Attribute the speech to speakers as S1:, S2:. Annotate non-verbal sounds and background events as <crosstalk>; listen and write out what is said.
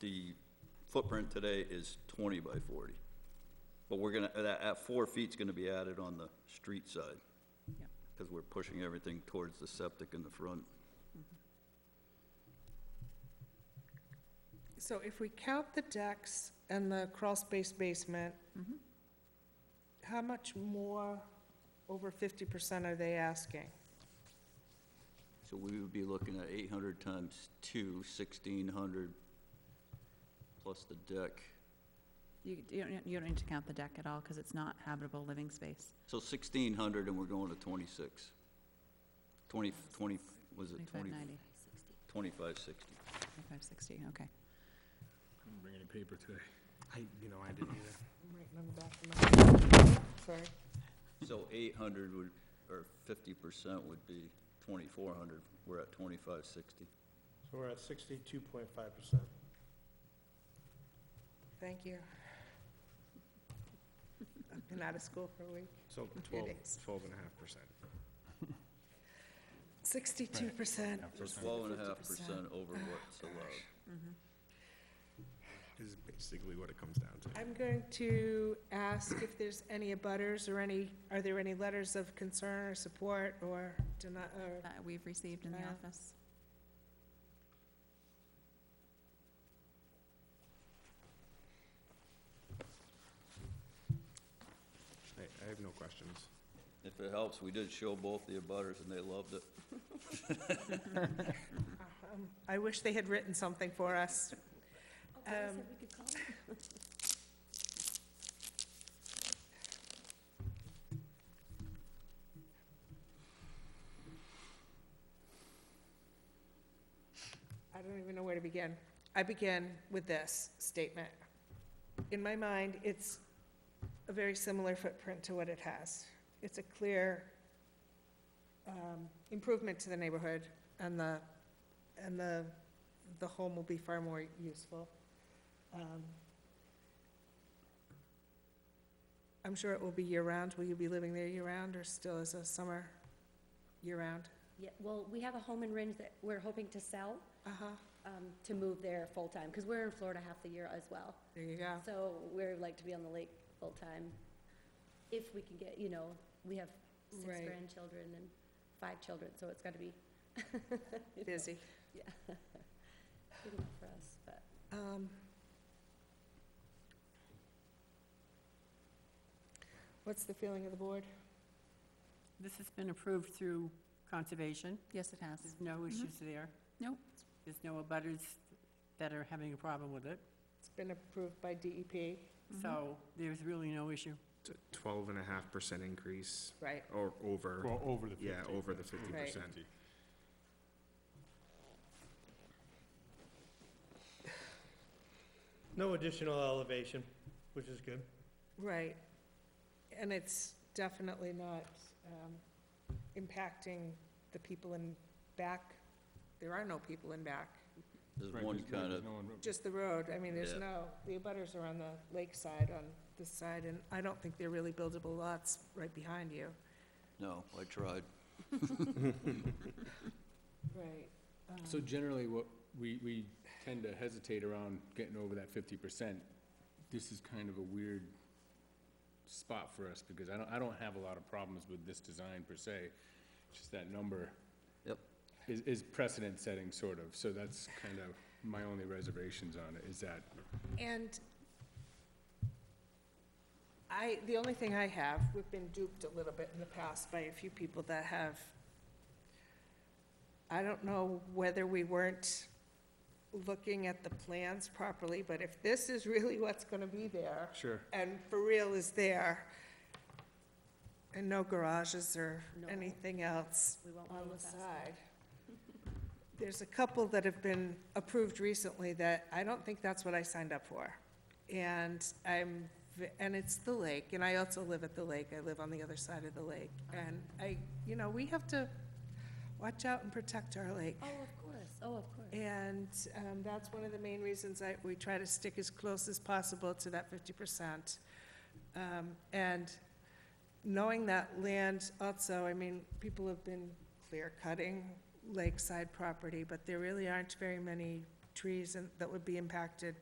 S1: the footprint today is twenty by forty. But we're gonna, that, at four feet's gonna be added on the street side,
S2: Yeah.
S1: because we're pushing everything towards the septic in the front.
S3: So if we count the decks and the crawl space basement,
S2: Mm-hmm.
S3: how much more over fifty percent are they asking?
S1: So we would be looking at eight hundred times two, sixteen hundred, plus the deck.
S2: You, you don't, you don't need to count the deck at all, because it's not habitable living space.
S1: So sixteen hundred, and we're going to twenty-six. Twenty, twenty, was it
S2: Twenty-five
S1: twenty?
S2: ninety,
S1: Twenty-five sixty.
S2: twenty-five sixty, okay.
S4: Didn't bring any paper today.
S5: I, you know, I didn't either.
S3: I'm writing on the back of my- Sorry.
S1: So eight hundred would, or fifty percent would be twenty-four hundred, we're at twenty-five sixty.
S5: <laughs> So we're at sixty-two point five percent.
S3: Thank you. I've been out of school for a week.
S5: So twelve, twelve and a half percent.
S3: Sixty-two percent.
S1: We're twelve and a half percent over what's allowed.
S6: Mm-hmm.
S5: Is basically what it comes down to.
S3: I'm going to ask if there's any abutters or any, are there any letters of concern or support or deny, or
S2: That Uh, we've received in the
S3: Yeah.
S2: office.
S5: I, I have no questions.
S1: If it helps, we did show both the abutters and they loved it.
S3: Um, I wish they had written something for us. Um, I don't even know where to begin. I begin with this statement. In my mind, it's a very similar footprint to what it has. It's a clear um, improvement to the neighborhood, and the, and the, the home will be far more useful. Um, I'm sure it will be year-round. Will you be living there year-round, or still as a summer, year-round?
S7: Yeah, well, we have a home in Ringe that we're hoping to sell,
S3: Uh-huh,
S7: um, to move there full-time, because we're in Florida half the year as well.
S3: there you go.
S7: So we're like to be on the lake full-time, if we can get, you know, we have six
S3: Right.
S7: grandchildren and five children, so it's gotta be. you know,
S3: Busy.
S7: Good enough for us, but.
S3: Um, What's the feeling of the board?
S6: This has been approved through conservation.
S2: Yes, it has. Mm-hmm.
S6: There's no issues there.
S2: Nope.
S6: There's no abutters that are having a problem with it.
S3: It's been approved by E DEP.
S2: Mm-hmm.
S6: So there's really no issue.
S5: It's a twelve and a half percent increase
S3: Right.
S5: or over,
S4: Well, over the fifty.
S5: yeah, over the fifty percent.
S8: No additional elevation, which is good.
S3: Right. And it's definitely not um, impacting the people in back. There are no people in back,
S1: There's one kind of,
S3: just the road. I mean, there's
S1: Yeah.
S3: no, the abutters are on the lakeside on this side, and I don't think they're really buildable lots right behind you.
S1: no, I tried.
S3: Right.
S4: So generally, what, we, we tend to hesitate around getting over that fifty percent. This is kind of a weird spot for us, because I don't, I don't have a lot of problems with this design per se. Just that number
S1: Yep.
S4: is, is precedent-setting, sort of, so that's kind of my only reservations on it, is that
S3: And I, the only thing I have, we've been duped a little bit in the past by a few people that have, I don't know whether we weren't looking at the plans properly, but if this is really what's gonna be there,
S4: Sure.
S3: and for real is there, and no garages or
S7: No.
S3: anything else
S7: We won't
S3: on
S7: move
S3: the
S7: fast
S3: side. <laughs> There's a couple that have been approved recently that I don't think that's what I signed up for. And I'm, v- and it's the lake, and I also live at the lake, I live on the other side of the lake. And I, you know, we have to watch out and protect our lake.
S7: Oh, of course, oh, of course.
S3: And um, that's one of the main reasons I, we try to stick as close as possible to that 50%. Um, And knowing that land also, I mean, people have been clear cutting lakeside property, but there really aren't very many trees and, that would be impacted